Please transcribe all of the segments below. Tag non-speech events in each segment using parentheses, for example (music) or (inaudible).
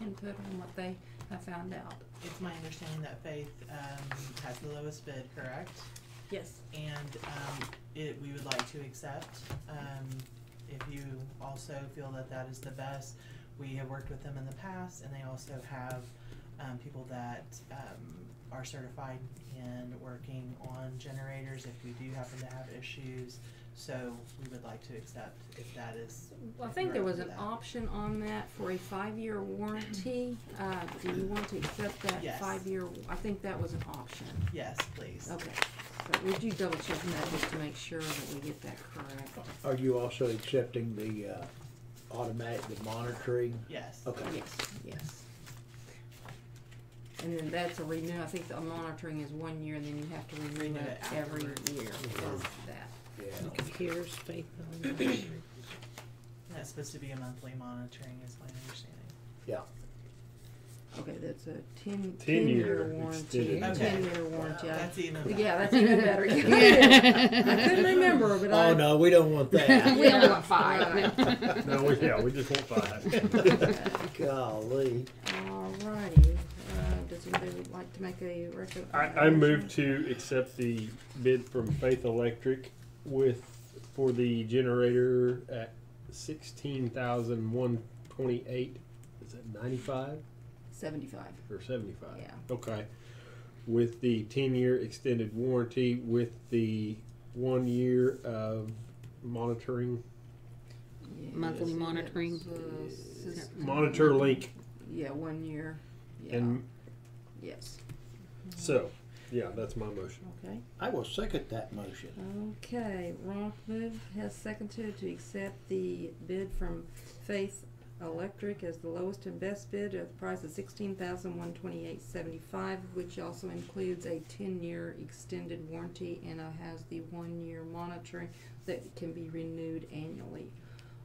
input on what they have found out. It's my understanding that Faith um, has the lowest bid, correct? Yes. And um, it, we would like to accept. Um, If you also feel that that is the best, we have worked with them in the past, and they also have um, people that um, are certified in working on generators if we do happen to have issues. So we would like to accept if that is, Well, I think there was an option on that for a five-year warranty. Uh, do you want to accept that Yes. five-year, I think that was an option. yes, please. Okay, so would you double check that just to make sure that we get that correct? Are you also accepting the uh, automatic, the monitoring? Yes. Okay, Yes, yes. And then that's a renew, I think the monitoring is one year and then you have to Renew renew it it every afterwards. year, is Mm-hmm. that. yeah. Computers, faith, That's supposed to be a monthly monitoring is my understanding. Okay, that's a ten, Ten-year ten-year warranty, extended. a Okay. ten-year warranty. I- That's even better. Yeah, that's even (laughs) better. I couldn't remember, but I. Oh, no, we don't want (laughs) We that. only (laughs) got five. No, we, yeah, we just want five. Golly. Alrighty, uh, does anybody like to make a record? (laughs) I, I move to accept the bid from Faith Electric with, for the generator at sixteen thousand one twenty-eight. Is that ninety-five Seventy-five, or seventy-five? Yeah. Okay. With the ten-year extended warranty, with the one year of monitoring, yes. Monthly monitoring. That's, uh, system. monitor link, Yeah, one year, yeah, and yes, so, yeah, that's my motion. okay. I will second that motion. Okay, Ronk move has seconded to accept the bid from Faith Electric as the lowest and best bid at the price of sixteen thousand one twenty-eight seventy-five, which also includes a ten-year extended warranty and uh, has the one-year monitoring that can be renewed annually.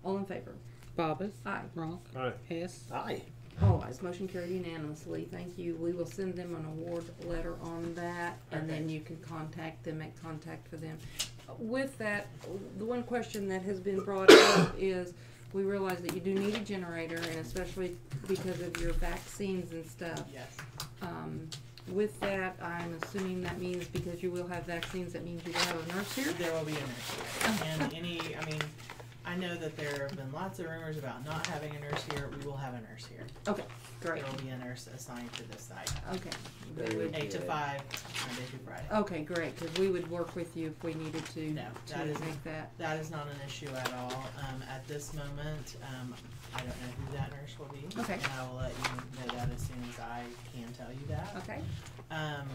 All in favor? Bobbit, Aye. Ronk, Alright, Hess, Aye. All ayes, motion carried unanimously, thank you. We will send them an award letter on that, and then Perfect. you can contact them, make contact for them. With that, the one question that has been brought up is, we realize that you do need a generator, and especially because of your vaccines and stuff. Yes. Um, with that, I'm assuming that means because you will have vaccines, that means you will have a nurse here? There will be a nurse here. And any, I mean, I know that there have been lots of rumors about not having a nurse here. We will have a nurse here. Okay, great, There will be a nurse assigned to this site. okay. We Very would- good. Eight to Yeah. five, Monday through Friday. Okay, great, cause we would work with you if we needed to, No, that to is- make that, That is not an issue at all. Um, at this moment, um, I don't know who that nurse will be. Okay. And I will let you know that as soon as I can tell you that. okay? Um,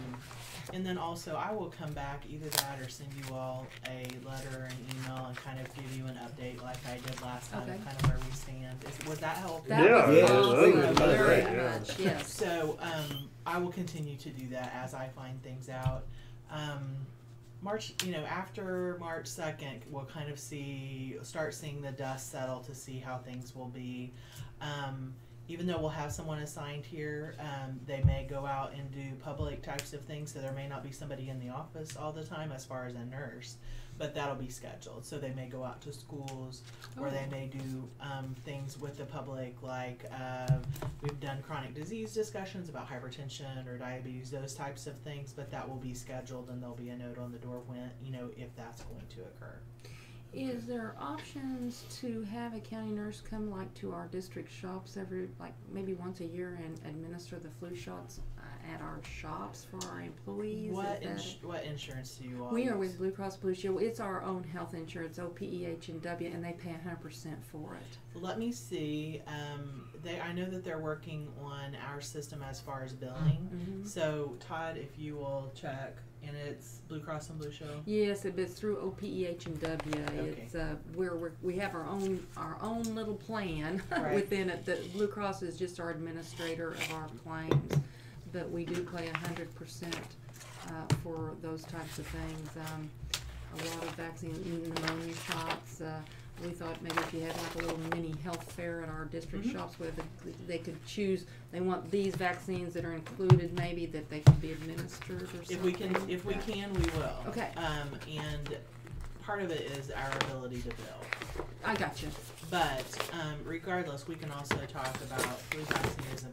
and then also, I will come back either that or send you all a letter or an email and kind of give you an update like I did last time, Okay. kind of where we stand. Is, was that helpful? That Yeah, was yeah, awesome. that was very great, yeah. much. Yes. So um, I will continue to do that as I find things out. Um, March, you know, after March second, we'll kind of see, start seeing the dust settle to see how things will be. Um, even though we'll have someone assigned here, um, they may go out and do public types of things, so there may not be somebody in the office all the time as far as a nurse, but that'll be scheduled. So they may go out to schools, Oh. or they may do um, things with the public, like uh, we've done chronic disease discussions about hypertension or diabetes, those types of things. But that will be scheduled, and there'll be a note on the door when you know if that's going to occur. Is there options to have a county nurse come like to our district shops every, like maybe once a year and administer the flu shots uh, at our shops for our employees? Is What that ins- what insurance do you a- all? We are with use? Blue Cross Blue Shield. It's our own health insurance, OPEH and W, and they pay hundred percent for it. Let me see. Um, they I know that they're working on our system as far as billing. Mhm. So Todd, if you will check, and it's Blue Cross and Blue Shield. Yes, it- but it's through OPEH and W. Okay. It's uh, where we're, we have our own our own little plan (laughs) Right. within it. The Blue Cross is just our administrator of our claims, but we do pay a hundred percent uh, for those types of things. Um, a lot of vaccine mm, pneumonia shots. Uh, we thought maybe if you had like a little mini health fair at our district Mhm. shops where the, they could choose, they want these vaccines that are included, maybe that they could be administered or something. If we can, like if we that. can, we will. Okay. Um, and part of it is our ability to bill. I got you. But, um, regardless, we can also talk about flu vaccines and